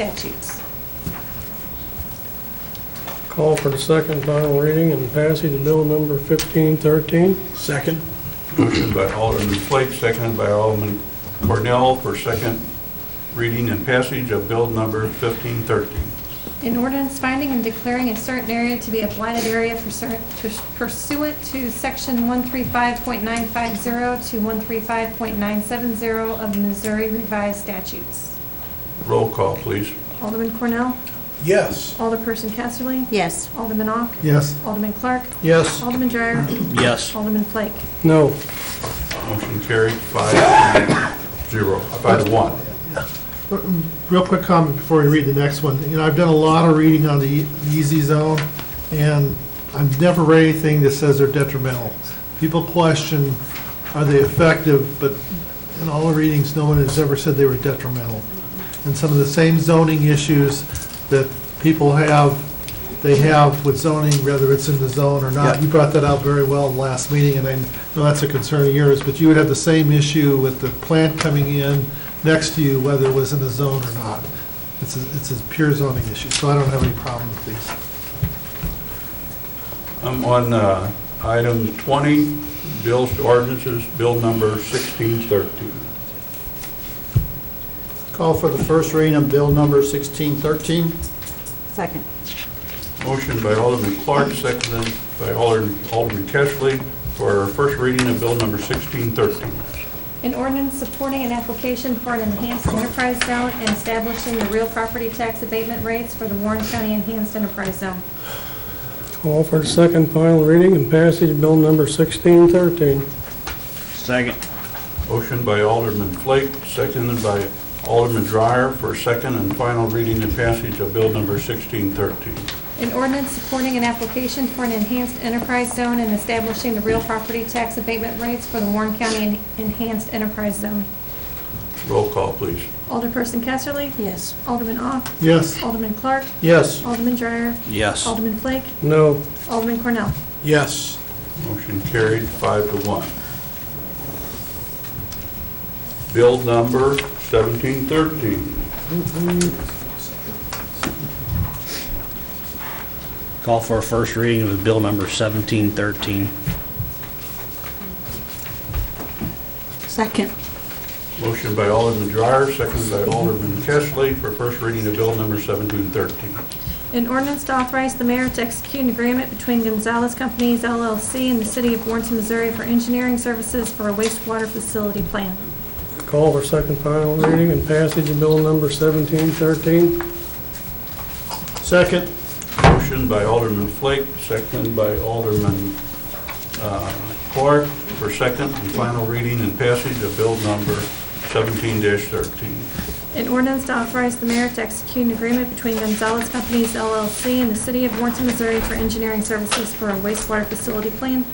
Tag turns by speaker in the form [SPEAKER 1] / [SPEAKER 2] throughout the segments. [SPEAKER 1] statutes.
[SPEAKER 2] Call for the second final reading and passage of bill number 1513.
[SPEAKER 3] Second?
[SPEAKER 4] Motion by Alderman Flake, seconded by Alderman Cornell for second reading and passage of bill number 1513.
[SPEAKER 1] An ordinance finding and declaring a certain area to be a blighted area for cer- to- pursuant to section 135.950 to 135.970 of Missouri revised statutes.
[SPEAKER 4] Roll call, please.
[SPEAKER 1] Alderman Cornell?
[SPEAKER 3] Yes.
[SPEAKER 1] Alderperson Casterly?
[SPEAKER 5] Yes.
[SPEAKER 1] Alderman Ock?
[SPEAKER 3] Yes.
[SPEAKER 1] Alderman Clark?
[SPEAKER 3] Yes.
[SPEAKER 1] Alderman Dreyer?
[SPEAKER 3] Yes.
[SPEAKER 1] Alderman Flake?
[SPEAKER 2] No.
[SPEAKER 4] Motion carried five to zero, uh, five to one.
[SPEAKER 6] Real quick comment before we read the next one. You know, I've done a lot of reading on the easy zone, and I've never read anything that says they're detrimental. People question, are they effective, but in all the readings, no one has ever said they were detrimental. And some of the same zoning issues that people have, they have with zoning, whether it's in the zone or not.
[SPEAKER 3] Yeah.
[SPEAKER 6] You brought that out very well last meeting, and I know that's a concern of yours, but you would have the same issue with the plant coming in next to you, whether it was in the zone or not. It's a, it's a pure zoning issue, so I don't have any problem with these.
[SPEAKER 4] I'm on uh, item 20, bills to ordinances, bill number 1613.
[SPEAKER 3] Call for the first reading of bill number 1613.
[SPEAKER 5] Second.
[SPEAKER 4] Motion by Alderman Clark, seconded by Alderman Alderman Kessley for first reading of bill number 1613.
[SPEAKER 1] An ordinance supporting an application for an enhanced enterprise zone and establishing the real property tax abatement rates for the Warren County Enhanced Enterprise Zone.
[SPEAKER 2] Call for the second final reading and passage of bill number 1613.
[SPEAKER 3] Second.
[SPEAKER 4] Motion by Alderman Flake, seconded by Alderman Dreyer for second and final reading and passage of bill number 1613.
[SPEAKER 1] An ordinance supporting an application for an enhanced enterprise zone and establishing the real property tax abatement rates for the Warren County En- Enhanced Enterprise Zone.
[SPEAKER 4] Roll call, please.
[SPEAKER 1] Alderperson Casterly?
[SPEAKER 5] Yes.
[SPEAKER 1] Alderman Ock?
[SPEAKER 6] Yes?
[SPEAKER 1] Alderman Clark?
[SPEAKER 3] Yes.
[SPEAKER 1] Alderman Dreyer?
[SPEAKER 3] Yes.
[SPEAKER 1] Alderman Flake?
[SPEAKER 2] No.
[SPEAKER 1] Alderman Cornell?
[SPEAKER 3] Yes.
[SPEAKER 4] Motion carried, five to one. Bill number 1713.
[SPEAKER 7] Call for a first reading of Bill Number 1713.
[SPEAKER 5] Second.
[SPEAKER 4] Motion by Alderman Dreyer, seconded by Alderman Kessley for first reading of bill number 1713.
[SPEAKER 1] An ordinance to authorize the mayor to execute an agreement between Gonzalez Companies LLC and the city of Warrenton, Missouri for engineering services for a wastewater facility plan.
[SPEAKER 2] Call for second final reading and passage of bill number 1713.
[SPEAKER 3] Second?
[SPEAKER 4] Motion by Alderman Flake, seconded by Alderman uh, Clark for second and final reading and passage of bill number 17-13.
[SPEAKER 1] An ordinance to authorize the mayor to execute an agreement between Gonzalez Companies LLC and the city of Warrenton, Missouri for engineering services for a wastewater facility plan.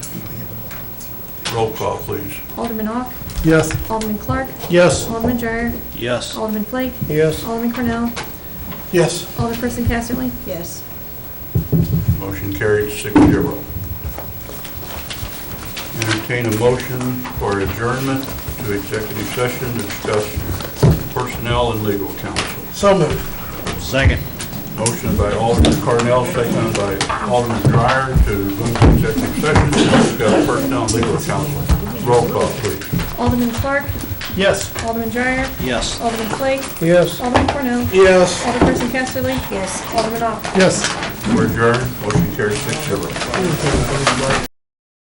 [SPEAKER 4] Roll call, please.
[SPEAKER 1] Alderman Ock,
[SPEAKER 6] Yes.
[SPEAKER 1] Alderman Clark,
[SPEAKER 3] Yes.
[SPEAKER 1] Alderman Dreyer,
[SPEAKER 7] Yes.
[SPEAKER 1] Alderman Flake,
[SPEAKER 2] Yes.
[SPEAKER 1] Alderman Cornell,
[SPEAKER 3] Yes.
[SPEAKER 1] Alderperson Casterly.
[SPEAKER 5] Yes.
[SPEAKER 4] Motion carried six zero. Entertain a motion for adjournment to executive session to discuss personnel and legal counsel.
[SPEAKER 3] So moved.
[SPEAKER 7] Second.
[SPEAKER 4] Motion by Alderman Cornell, seconded by Alderman Dreyer to go into executive session to discuss personnel and legal counsel. Roll call, please.
[SPEAKER 1] Alderman Clark,
[SPEAKER 3] Yes.
[SPEAKER 1] Alderman Dreyer,
[SPEAKER 7] Yes.
[SPEAKER 1] Alderman Flake,
[SPEAKER 2] Yes.
[SPEAKER 1] Alderman Cornell,
[SPEAKER 3] Yes.
[SPEAKER 1] Alderperson Casterly,
[SPEAKER 5] Yes.
[SPEAKER 1] Alderman Ock.
[SPEAKER 6] Yes.
[SPEAKER 4] We're adjourned. Motion carries six zero.